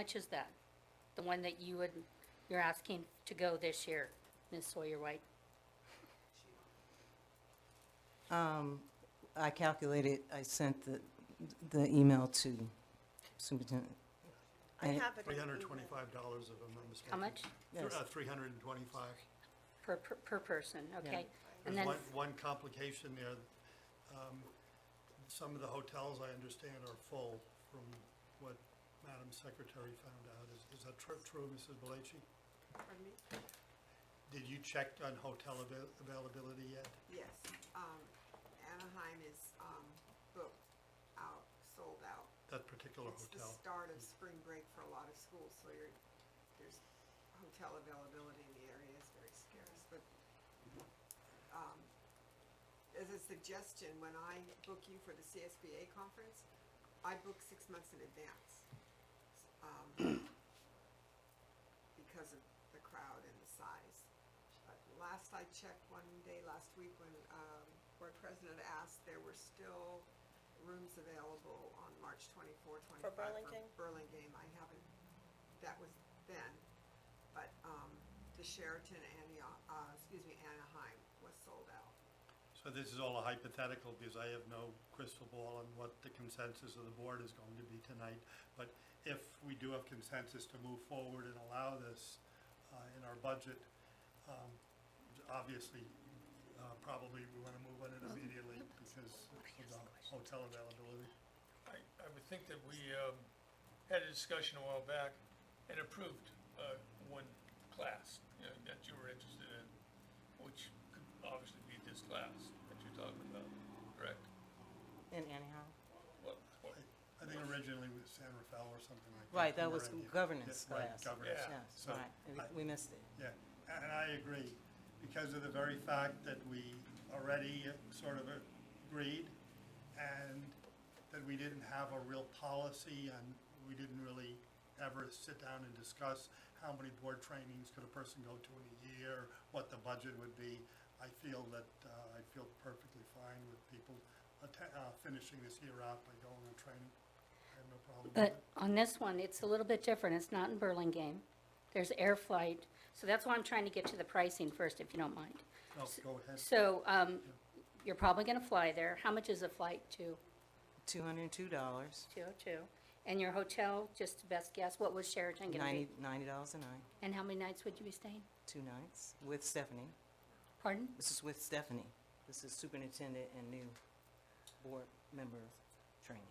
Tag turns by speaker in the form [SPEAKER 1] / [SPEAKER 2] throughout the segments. [SPEAKER 1] much is that? The one that you would, you're asking to go this year, Ms. Sawyer White?
[SPEAKER 2] I calculated, I sent the, the email to Superintendent.
[SPEAKER 3] I
[SPEAKER 2] And-
[SPEAKER 3] have it. in
[SPEAKER 4] Three
[SPEAKER 3] the
[SPEAKER 4] hundred and
[SPEAKER 3] email.
[SPEAKER 4] twenty-five dollars if I'm not mistaken.
[SPEAKER 1] How much?
[SPEAKER 2] Yes.
[SPEAKER 4] uh, Three hundred and twenty-five.
[SPEAKER 1] Per, per, per person, okay? And
[SPEAKER 4] There's
[SPEAKER 1] then,
[SPEAKER 4] one, one complication there. Um, Some of the hotels, I understand, are full from what Madam Secretary found out. Is, is that tru- true, Mrs. Belici?
[SPEAKER 3] Pardon me?
[SPEAKER 4] Did you check on hotel avail- availability yet?
[SPEAKER 3] Yes, um, Anaheim is, um, booked out, sold out.
[SPEAKER 4] That particular
[SPEAKER 3] It's the
[SPEAKER 4] hotel?
[SPEAKER 3] start of spring break for a lot of schools, so you're, there's hotel availability in the area is very scarce, but, um, as a suggestion, when I book you for the CSBA conference, I book six months in advance. s- Um, because of the crowd and the size. But last I checked one day last week when, um, board president asked, there were still rooms available on March 24, 25.
[SPEAKER 5] For Burlingame?
[SPEAKER 3] Burlingame, I haven't, that was then, but, um, the Sheraton Antioch, uh, excuse me, Anaheim was sold out.
[SPEAKER 4] So this is all a hypothetical because I have no crystal ball on what the consensus of the board is going to be tonight. But if we do have consensus to move forward and allow this uh, in our budget, um, obviously, uh, probably we want to move on it immediately because of the hotel availability.
[SPEAKER 6] I, I would think that we, um, had a discussion a while back and approved, uh, one class, you know, that you were interested in, which could obviously be this class that you're talking about, correct?
[SPEAKER 2] In Anaheim?
[SPEAKER 6] What, what,
[SPEAKER 4] I think originally with San Rafael or something like that.
[SPEAKER 2] Right, that
[SPEAKER 4] we were
[SPEAKER 2] was
[SPEAKER 4] in-
[SPEAKER 2] governance
[SPEAKER 4] Yeah, right,
[SPEAKER 2] class.
[SPEAKER 4] governance.
[SPEAKER 6] Yeah.
[SPEAKER 2] Yes,
[SPEAKER 4] So, I-
[SPEAKER 2] right, we missed it.
[SPEAKER 4] Yeah, and I agree, because of the very fact that we already sort of agreed and that we didn't have a real policy and we didn't really ever sit down and discuss how many board trainings could a person go to in a year, what the budget would be. I feel that, uh, I feel perfectly fine with people atta- uh, finishing this year out by going on training. I have no problem with
[SPEAKER 1] but
[SPEAKER 4] it.
[SPEAKER 1] on this one, it's a little bit different. It's not in Burlingame. There's air flight. So that's why I'm trying to get to the pricing first, if you don't mind.
[SPEAKER 4] No, go ahead.
[SPEAKER 1] So, um, you're probably gonna fly there. How much is a flight to
[SPEAKER 2] Two hundred and two dollars,
[SPEAKER 1] 202? And your hotel, just best guess, what was Sheraton gonna
[SPEAKER 2] ninety,
[SPEAKER 1] be?
[SPEAKER 2] ninety dollars a night,
[SPEAKER 1] And how many nights would you be staying?
[SPEAKER 2] two nights, with Stephanie.
[SPEAKER 1] Pardon?
[SPEAKER 2] This is with Stephanie. This is superintendent and new board member training.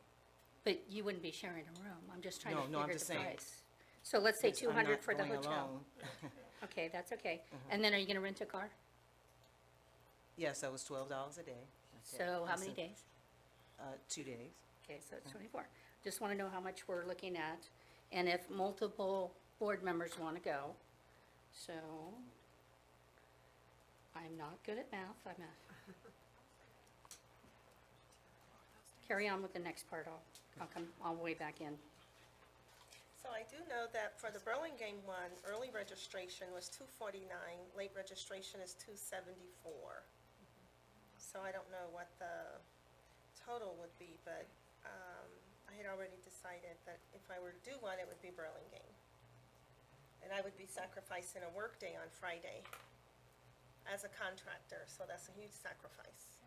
[SPEAKER 1] But you wouldn't be sharing a room, I'm just trying to
[SPEAKER 2] No, no, I'm
[SPEAKER 1] figure
[SPEAKER 2] just
[SPEAKER 1] the
[SPEAKER 2] saying.
[SPEAKER 1] price. So let's say
[SPEAKER 2] Yes, I'm
[SPEAKER 1] two hundred
[SPEAKER 2] not
[SPEAKER 1] for the
[SPEAKER 2] going
[SPEAKER 1] hotel.
[SPEAKER 2] alone. Mm-hmm.
[SPEAKER 1] Okay, that's okay. And then are you gonna rent a car?
[SPEAKER 2] Yes, that was twelve dollars a day. That's it.
[SPEAKER 1] So how
[SPEAKER 2] That's
[SPEAKER 1] many
[SPEAKER 2] it. Mm-hmm.
[SPEAKER 1] days?
[SPEAKER 2] Uh, two days.
[SPEAKER 1] Okay, so it's twenty-four. Just wanna know how much we're looking at, and if multiple board members wanna go. So, I'm not good at math, I'm a. Carry on with the next part, I'll, I'll come, I'll way back in.
[SPEAKER 5] So I do know that for the Burlingame one, early registration was two forty-nine, late registration is two seventy-four. So I don't know what the total would be, but, um, I had already decided that if I were to do one, it would be Burlingame. And I would be sacrificing a workday on Friday as a contractor, so that's a huge sacrifice.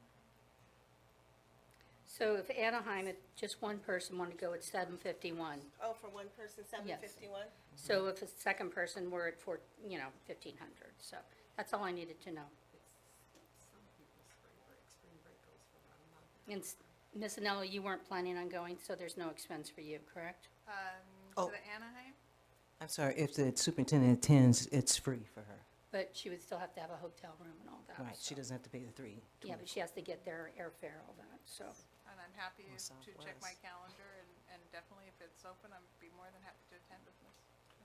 [SPEAKER 1] So if Anaheim, if just one person wanted to go, it's seven fifty-one.
[SPEAKER 5] Oh, for one person, seven fifty-one?
[SPEAKER 2] Mm-hmm.
[SPEAKER 1] So if a second person were at four, you know, fifteen hundred, so that's all I needed to know.
[SPEAKER 3] It's some people's spring break, spring break goes for about a month.
[SPEAKER 1] And s- Ms. Anello, you weren't planning on going, so there's no expense for you, correct?
[SPEAKER 2] Oh.
[SPEAKER 7] Um, to the Anaheim?
[SPEAKER 2] I'm sorry, if the superintendent attends, it's free for her.
[SPEAKER 1] But she would still have to have a hotel room and all that.
[SPEAKER 2] Right, she
[SPEAKER 1] so-
[SPEAKER 2] doesn't have to pay the three.
[SPEAKER 1] Yeah, but she has to get their airfare, all that, so.
[SPEAKER 7] And I'm happy
[SPEAKER 2] Or
[SPEAKER 7] to check my
[SPEAKER 2] Southwest.
[SPEAKER 7] calendar and, and definitely if it's open, I'd be more than happy to attend with Ms.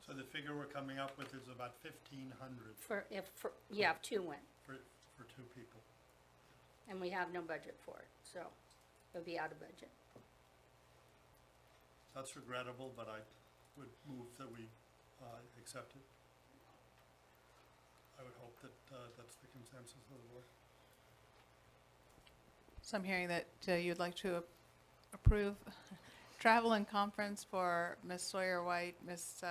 [SPEAKER 4] So the figure we're coming up with is about fifteen hundred
[SPEAKER 1] For, if, for, yeah, if two went,
[SPEAKER 4] for, for two people.
[SPEAKER 1] and we have no budget for it, so it would be out of budget.
[SPEAKER 4] That's regrettable, but I would move that we uh, accept it. I would hope that uh, that's the consensus of the board.
[SPEAKER 7] So I'm hearing that uh, you'd like to ap- approve tra- travel and conference for Miss Sawyer White, Miss